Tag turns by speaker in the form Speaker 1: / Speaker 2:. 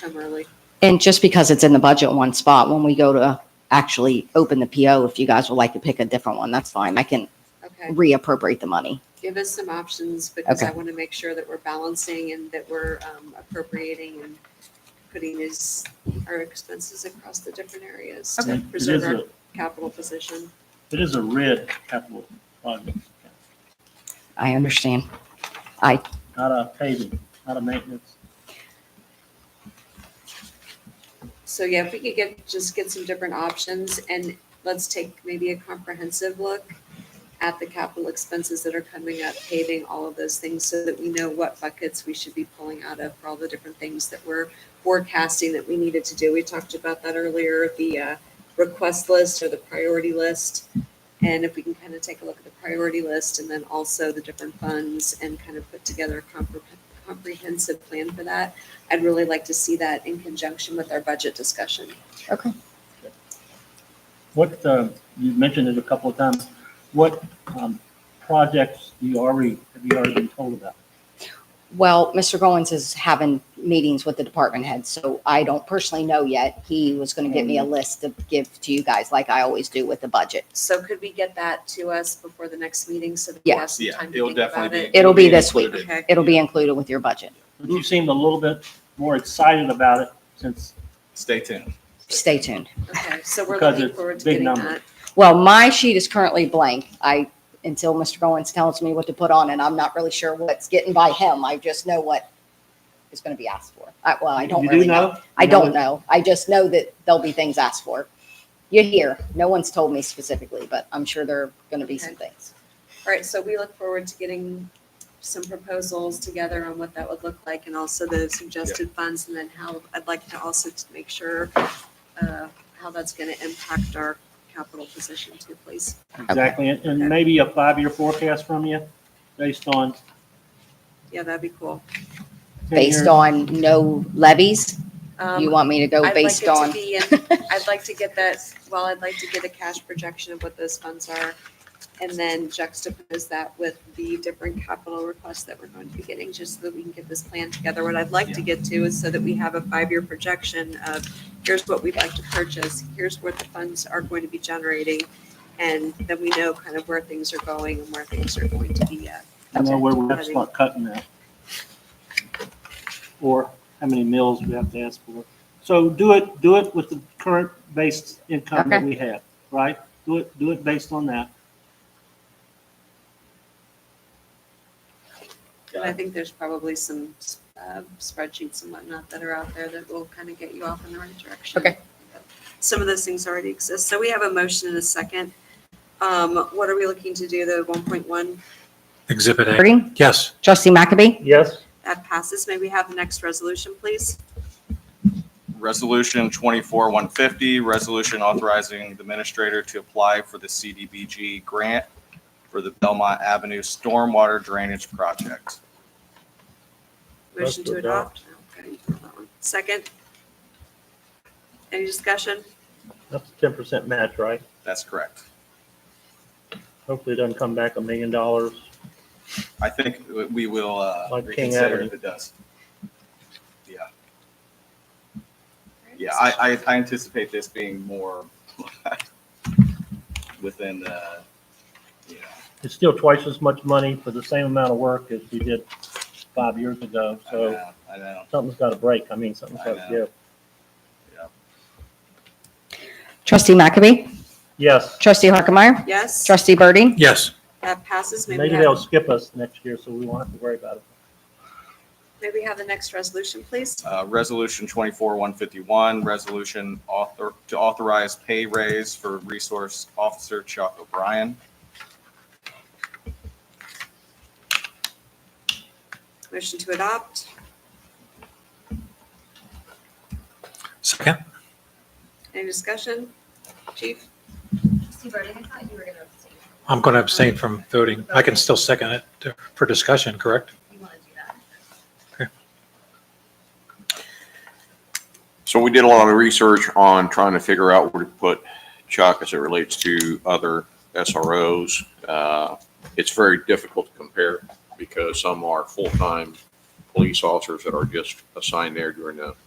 Speaker 1: come early.
Speaker 2: And just because it's in the budget one spot, when we go to actually open the PO, if you guys would like to pick a different one, that's fine. I can
Speaker 1: Okay,
Speaker 2: reappropriate the money.
Speaker 1: give us some options because
Speaker 2: Okay.
Speaker 1: I want to make sure that we're balancing and that we're um, appropriating and putting these, our expenses across the different areas
Speaker 3: It
Speaker 1: to
Speaker 3: it is
Speaker 1: preserve our
Speaker 3: a,
Speaker 1: capital position.
Speaker 3: it is a red capital project,
Speaker 2: I understand.
Speaker 3: not a paving, not a maintenance.
Speaker 1: So yeah, if we could get, just get some different options and let's take maybe a comprehensive look at the capital expenses that are coming up, paving, all of those things, so that we know what buckets we should be pulling out of for all the different things that we're forecasting that we needed to do. We talked about that earlier, the uh, request list or the priority list. And if we can kind of take a look at the priority list and then also the different funds and kind of put together a compre- comprehensive plan for that. I'd really like to see that in conjunction with our budget discussion.
Speaker 3: What, uh, you mentioned it a couple of times, what, um, projects do you already, have you already been told about?
Speaker 2: Well, Mr. Goins is having meetings with the department heads, so I don't personally know yet. He was going to give me a list to give to you guys like I always do with the budget.
Speaker 1: So could we get that to us before the next meeting so that we
Speaker 2: Yeah.
Speaker 1: have some
Speaker 4: Yeah,
Speaker 1: time to
Speaker 4: it'll
Speaker 1: think about
Speaker 4: definitely
Speaker 1: it?
Speaker 4: be.
Speaker 2: It'll be this week.
Speaker 4: included.
Speaker 1: Okay.
Speaker 2: It'll be included with your budget.
Speaker 3: But you seemed a little bit more excited about it since,
Speaker 4: Stay tuned.
Speaker 2: Stay tuned.
Speaker 1: Okay, so we're
Speaker 3: Because
Speaker 1: looking
Speaker 3: it's
Speaker 1: forward to
Speaker 3: big
Speaker 1: getting
Speaker 3: number.
Speaker 1: that.
Speaker 2: Well, my sheet is currently blank. I, until Mr. Goins tells me what to put on, and I'm not really sure what's getting by him. I just know what is going to be asked for. I, well, I don't
Speaker 3: You do
Speaker 2: really know.
Speaker 3: know?
Speaker 2: I
Speaker 3: You
Speaker 2: don't know. I just know that there'll be things asked for. You're here. No one's told me specifically, but I'm sure there are going to be some things.
Speaker 1: All right, so we look forward to getting some proposals together on what that would look like and also the suggested funds and then how, I'd like to also to make sure uh, how that's going to impact our capital position too, please.
Speaker 3: Exactly, and, and maybe a five-year forecast from you based on. 10
Speaker 1: Yeah, that'd be cool.
Speaker 2: Based
Speaker 3: years.
Speaker 2: on no levies? You
Speaker 1: Um,
Speaker 2: want me to go
Speaker 1: I'd like
Speaker 2: based
Speaker 1: it to
Speaker 2: on?
Speaker 1: be in- I'd like to get that, well, I'd like to get a cash projection of what those funds are and then juxtapose that with the different capital requests that we're going to be getting, just so that we can get this plan together. What I'd like to get to is so that we have a five-year projection of, here's what we'd like to purchase, here's what the funds are going to be generating, and then we know kind of where things are going and where things are going to be at.
Speaker 3: I know where we have to start cutting that. Or how many mills we have to ask for. So do it, do it with the current based income that
Speaker 2: Okay.
Speaker 3: we have, right? Do it, do it based on that.
Speaker 1: And I think there's probably some uh, spreadsheets and whatnot that are out there that will kind of get you off in the right direction.
Speaker 2: Okay.
Speaker 1: Some of those things already exist. So we have a motion and a second. Um, What are we looking to do, the 1.1?
Speaker 5: Exhibit A.
Speaker 2: Green?
Speaker 5: Yes.
Speaker 2: Trustee McAbey?
Speaker 3: Yes.
Speaker 1: That passes. May we have the next resolution, please?
Speaker 4: Resolution twenty-four one fifty, resolution authorizing the administrator to apply for the CDBG grant for the Belmont Avenue Stormwater Drainage Project.
Speaker 1: Motion to adopt. Okay, that one. Second? Any discussion?
Speaker 6: That's a ten percent match, right?
Speaker 4: That's correct.
Speaker 6: Hopefully it doesn't come back a million dollars.
Speaker 4: I think we- we will uh,
Speaker 6: Like King
Speaker 4: reconsider
Speaker 6: Avenue.
Speaker 4: if it does. Yeah, yeah, I, I I anticipate this being more within uh, the, you know,
Speaker 6: It's still twice as much money for the same amount of work as we did five years ago,
Speaker 4: I
Speaker 6: so
Speaker 4: know, I know.
Speaker 6: something's gotta break. I mean, something's gotta
Speaker 4: I know.
Speaker 6: give.
Speaker 2: Trustee McAbey?
Speaker 6: Yes,
Speaker 2: Trustee Harkemaier?
Speaker 1: Yes?
Speaker 2: Trustee Birding?
Speaker 5: Yes.
Speaker 1: That passes. May we
Speaker 6: maybe they'll
Speaker 1: have,
Speaker 6: skip us next year, so we won't have to worry about it.
Speaker 1: may we have the next resolution, please?
Speaker 4: Uh, Resolution 24-151, resolution author, to authorize pay raise for Resource Officer Chuck O'Brien.
Speaker 1: Motion to adopt.
Speaker 5: Second.
Speaker 1: Any discussion? Chief?
Speaker 7: Trustee Burden, I thought you were going to abstain.
Speaker 5: I'm going to abstain from voting. I can still second it to- for discussion, correct?
Speaker 7: You want to do that?
Speaker 8: So we did a lot of research on trying to figure out where to put Chuck as it relates to other SROs. Uh, It's very difficult to compare because some are full-time police officers that are just assigned there during the